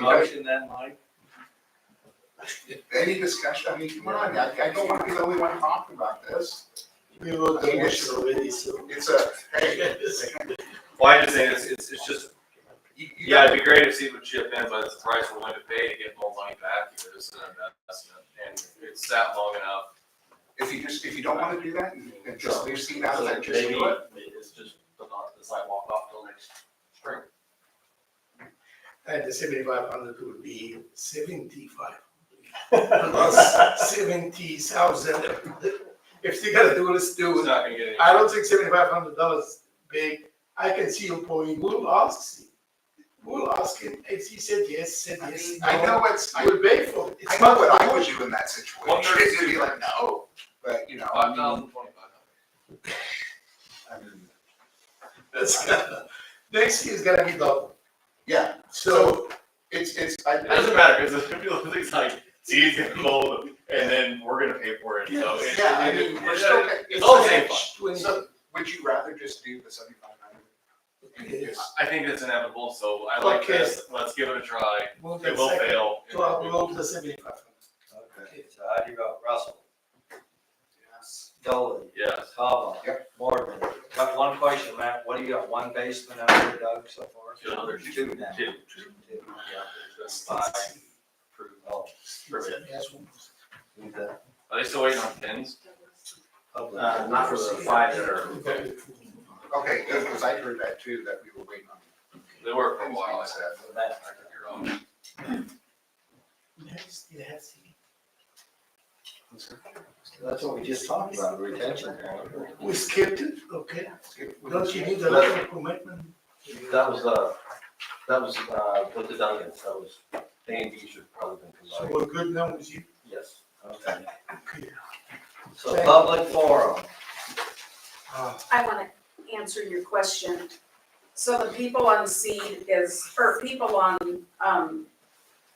that, Mike. Any discussion, I mean, come on, I, I don't wanna be the only one talking about this. You're a little emotional really, so. It's a, hey, Well, I'm just saying, it's, it's, it's just, you, you yeah, gotta, it'd be great if Steve would chip in, but it's the price we're willing to pay to get more money back, if it's an investment, and it's sat long enough. if you just, if you don't wanna do that, and and just leave Steve out of that, just Maybe do it. It's just put off the sidewalk off till next spring. And the seventy-five hundred would be seventy-five. Well, Seventy thousand. If they gotta do this, do It's it. not gonna get any. I don't think seventy-five hundred dollars big. I can see your point. We'll ask. him. We'll ask him. If he said yes, said I yes. mean, I know it's, I, I will pay for it. I It's know not what I would. would do in that Well, situation, there's- it'd be like, no, but, you know, I Five mean, thousand, twenty-five hundred. I mean, That's gonna, next year is gonna be double. yeah, So it's, it's, I. It doesn't matter, cause it's gonna be, like- it's like, Steve's gonna mow, them, and then we're gonna pay for it, so. it's- Yeah, I mean, we're still. It's all the same. twenty, So, would you rather just do the seventy-five hundred? yes, I think it's inevitable, so I like Okay. this, let's give it a try, move the it will second. fail. So I'll move the seventy-five hundred. Okay, so how do you vote? Russell, Dolan, Yes, Cobba, Mormon. Got one question, Matt. What do you got? One basement out there dug so far? Two. Two now. two, Two. Yeah. yeah, there's been five approved Oh, permits. Yes, one. need the Are they still waiting on pins? public. Uh, not for the five that are, Okay, good, because I heard that too, that we were waiting on. They were for a while, I Things said. like For that. I could be wrong. Next, it has to be- That's what we just talked about, retention. We skipped it, okay. that. Don't you need a lot of commitment? That was, uh, that was, uh, with the Dunkins, that was, A and B should probably been So combined. we're good now with you? Yes. Okay. Okay. So public forum. Ah, I want to answer your question. So the people on seed is, or people on, um,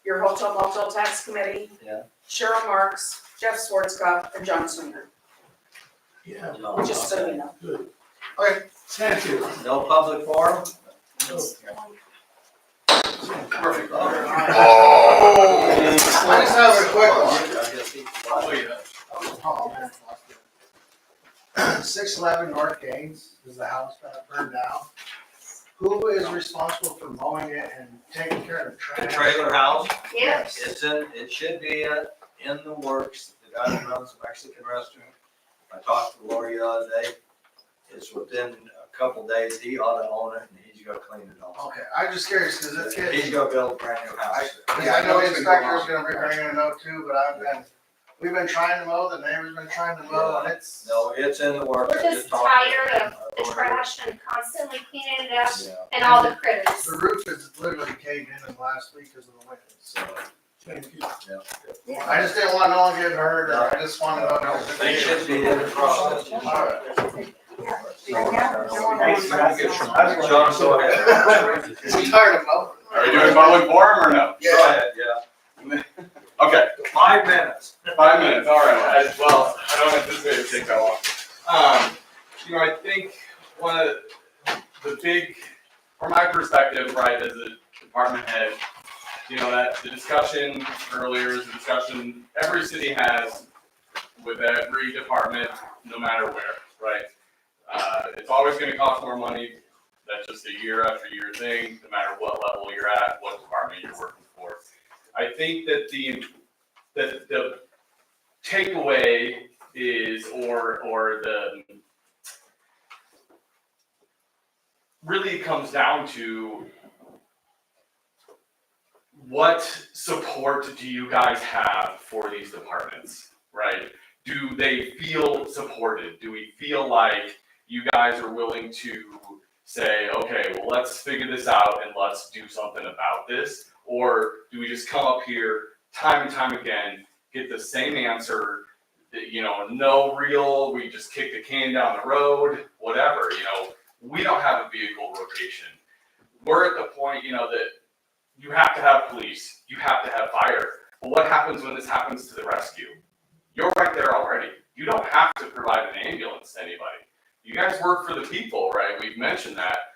your hotel motel tax committee? Yeah. Cheryl Marks, Jeff Swartzkopf, and John Swinger, Yeah, just so you know. thank you. No public forum? Perfect. I just have a quick one. Oh, yeah. Six eleven North Gaines is the house that burned down. Who is responsible for mowing it and taking care of the The trash? trailer house, Yes. it's in, it should be uh, in the works, the guy who runs the Mexican restaurant. I talked to Lori the other day, it's within a couple days, he ought to own it and he's gonna clean it all. Okay, I'm just curious, cause it's He's getting, gonna build a brand new house. cause I know the inspector's gonna be bringing a note too, but I've been, we've been trying to mow, the neighbor's been trying to mow, and it's. No, it's in the works. We're I just talked to tired him. the trash and constantly cleaning it up Yeah, and all the critters. The roof is literally caved in in the last week because of the wind, so. Thank you. I just didn't want no one getting hurt, or I just wanted to know. if They it's- should be in the process. All right. That's John, go ahead. I'm tired of mowing. Are we doing public forum or no? Go ahead, yeah. Okay, Five minutes. five minutes, all right, I, well, I don't anticipate it to take that long. Um, you know, I think one of the big, from my perspective, right, as a department head, you know, that the discussion earlier is the discussion every city has with every department, no matter where, right? Uh, it's always gonna cost more money, that's just a year after year thing, no matter what level you're at, what department you're working for. I think that the, that the takeaway is, or, or the, really comes down to what support do you guys have for these departments, right? Do they feel supported? Do we feel like you guys are willing to say, okay, well, let's figure this out and let's do something about this? Or do we just come up here time and time again, get the same answer, that, you know, no real, we just kick the can down the road, whatever, you know? We don't have a vehicle rotation. We're at the point, you know, that you have to have police, you have to have fire. But what happens when this happens to the rescue? You're right there already. You don't have to provide an ambulance to anybody. You guys work for the people, right? We've mentioned that.